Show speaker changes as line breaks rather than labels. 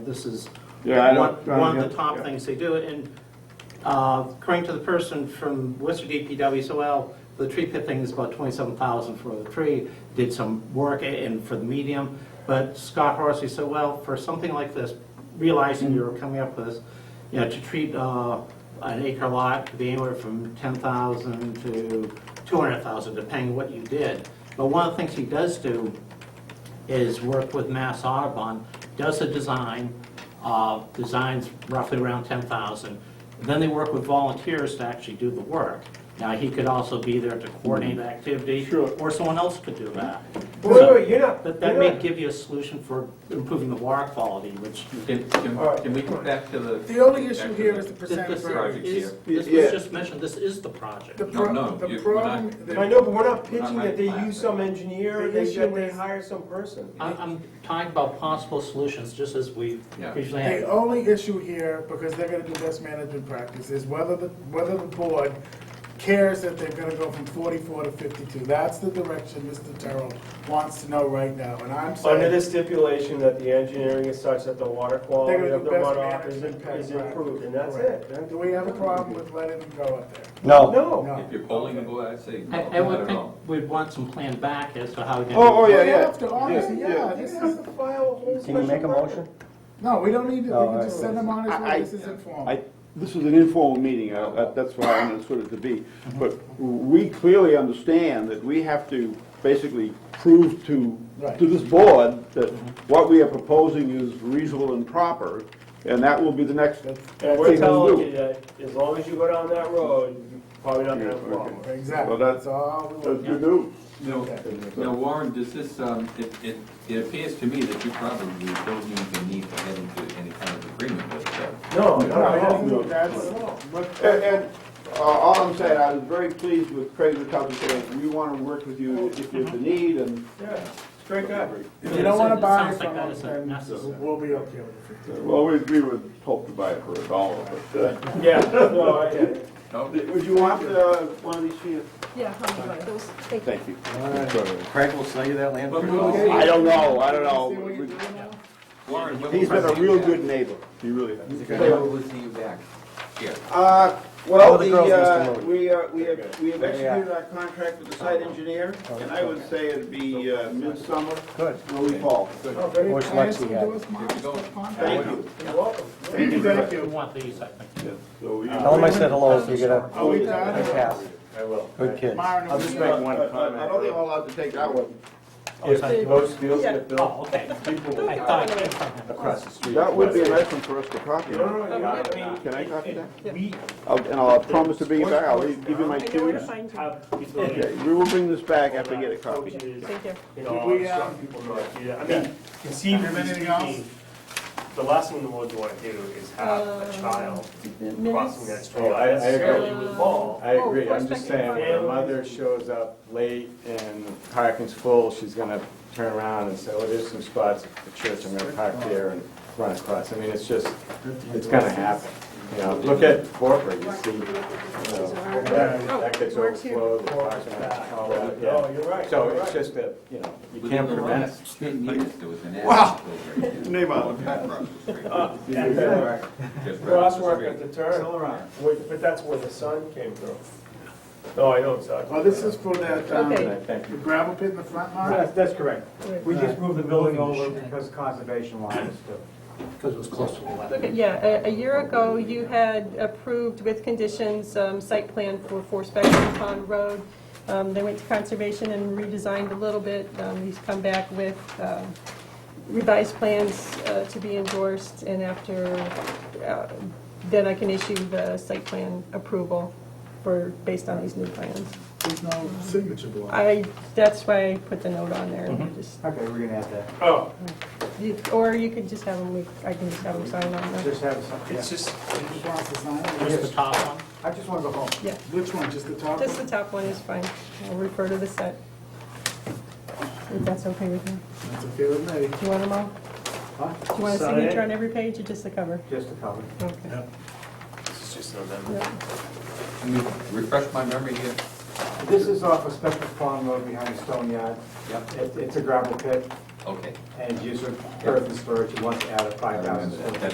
This is
Yeah, I
one,
don't- I don't
one of the
get-
top
yeah.
things they do, and uh, according to the person from Worcester DPW, so well, the tree pit thing is about twenty-seven thousand for the tree, did some work a- and for the medium, but Scott Horsey said, well, for something like this, realizing you were coming up with this, you know, to treat uh, an acre lot could be anywhere from ten thousand to two hundred thousand, depending what you did. But one of the things he does do is work with Mass Audubon, does a design, uh, designs roughly around 10,000. Then they work with volunteers to actually do the work. Now, he could also be there to coordinate the activity.
Sure.
Or someone else could do that.
Mm-hmm. Wait, wait, wait, you're not,
But
you're
that may
not,
give you a solution for improving the water quality, which
Can, can,
All right.
can we go back to the?
The only
back
issue
to
here
the-
is the
this
percentage
this
Project
rate.
here.
is, this
Yeah.
was just mentioned, this is the project.
The
No,
pro,
no,
the
you- we're
problem,
not-
I
the,
know, but we're not
We're not
pitching that they
like
use
that.
some engineer,
The
they,
issue
that they
is-
hire some person.
I- I'm talking about possible solutions, just as we
Yeah.
usually
the
have.
only issue here, because they're gonna do best management practice, is whether the, whether the board cares that they're gonna go from forty-four to fifty-two. That's the direction Mr. Terrell wants to know right now, and I'm
Under the
saying,
stipulation that the engineering is such that the water quality
They're
of the
gonna do best
runoff is,
management
is
plan.
improved, and that's
Correct.
it. Oh, Then
do we have a problem with letting them go up there?
No.
No,
No.
If you're polling the board, I'd say no,
I I
not
would
at
think
all.
we'd want some plan back as to how we're going to.
Oh, oh, yeah,
Right
yeah.
after, obviously, yeah,
they
this
have
is,
to file a whole
Can you make a
special
motion?
no, we don't need to,
Oh,
we can
all
just
right.
send them on
I- I-
as, this is informal.
I, this is an informal meeting, I- I- that's what I understood it to be. But we clearly understand that we have to basically prove to,
Right.
to this board that what we are proposing is reasonable and proper, and that will be the next thing
And we're
to
telling you
do.
that as long as you go down that road, you're probably not gonna have a problem.
Exactly,
Well, that-
that's all we
That's
want.
good news.
Now, now Warren, does this, um, it, it, it appears to me that you probably don't even need to head into any kind of agreement with that.
No,
No, I
no,
don't
no.
think that's, look,
And, and uh, all I'm saying, I was very pleased with Craig McCutcheon saying, we want to work with you if there's a need, and
Yeah, straight guy.
If you don't wanna
It
buy
sounds
it
like
from
that
us,
isn't
then
necessary.
we'll be okay with it.
Well, we, we would hope to buy it for a dollar, but, uh,
Yeah, no, I get it.
No,
would you want, uh, one of these sheets?
Yeah, I'm sorry. Those- they-
Thank you.
Craig will sell you that land for
But
a
we'll
dollar.
see.
I don't know, I don't
See what you're doing
know.
now?
Warren, when
He's
will
been a
we
real
see
good neighbor. He really
He's a
has.
you
good
back? When
guy.
will we see you back? Here.
Uh,
All
well,
the
the,
girls must
uh,
have moved.
we are, we have, we have
Yeah. Oh.
executed our contract with the site engineer, and I would say it'd be, uh, midsummer,
Good.
early fall.
Oh, very
Or it's
kind.
Lexi
Somebody
had.
do us mine.
Here we go.
Thank you.
You're welcome.
Thank you.
Thank
We
you.
want these, I think.
Yes, so you-
Tell him I said hello if you get a,
Are we
a
done?
pass.
I will.
Good kid.
Myron, are
I'll
we
just
done?
make one
I- I- I don't think
comment.
I'm allowed to take that one.
If those deals get built,
Oh, okay.
people
I
will.
thought I came from him.
Across the street.
That would be a nice one for us to copy.
No, no, no, you
Yeah.
have it.
Can I copy that?
We
I'll- And I'll promise to bring it back, I'll give you my
I know where to
cues.
find you.
have utilities.
Okay, we will bring this back after I get a copy.
Thank you.
You
Did
know,
we,
it's
um,
not people know do that. I mean,
Have
conceivably
anything else?
speaking, the last thing the Lord would want to do is have a
Uh,
child crossing that
Minutes.
street
I- I agree.
necessarily with Paul.
I
Oh,
agree, I'm
horseback
just
and
saying, when a mother shows up late and the parking's full, she's gonna turn around and say, oh, there's some spots at the church, I'm gonna park there and run across. I mean, it's just, it's gonna happen, you know, look at Forkford, you see, you know, that that gets
Oh, works here.
overflowed, the parking lot's all over,
No,
yeah.
Oh, you're right.
So
you're
it's
right.
just that, you know, you
Within
can't
the
prevent it.
last Ten years, there was an
Wow.
accident over there.
Name on
Across the street.
And then
Just across the
Crosswalk at
street.
the turn, Wait, but that's where the sun came through. No, I know exactly.
Well, this is for that, um,
Okay.
Thank
the gravel pit in the front line.
That's, that's correct. We just moved the building over
Right.
because conservation lines do.
Because it was close to the weather.
Okay, Yeah, a- a year ago, you had approved with conditions, um, site plan for Four Spectrum Pond Road. Um, They went to conservation and redesigned a little bit. Um, He's come back with um, revised plans uh, to be endorsed, and after, uh, then I can issue the site plan approval for, based on these new plans.
There's no signature block.
I, that's why I put the note on there, just
Okay, we're gonna add that.
Oh,
You- Or you could just have them, we- I can just have them sign on there.
Just have a sign, yeah.
it's just,
He wants to sign it.
Just the top one.
I just wanna go home.
Yeah,
Which one, just the top
just the
one?
top one is fine. I'll refer to the set. If that's okay with you.
That's okay with me.
Do you want them all?
Huh?
Do you want a
Sign it.
signature on every page or just the cover?
Just a cover.
Okay.
it's just November.
Yeah.
Can you Refresh my memory here.
This is off a special farm road behind the stone yard.
Yep.
It, it's a gravel pit.
Okay.
And use of earth and storage, you want to add a
I
five thousand
remember that.
square foot.
That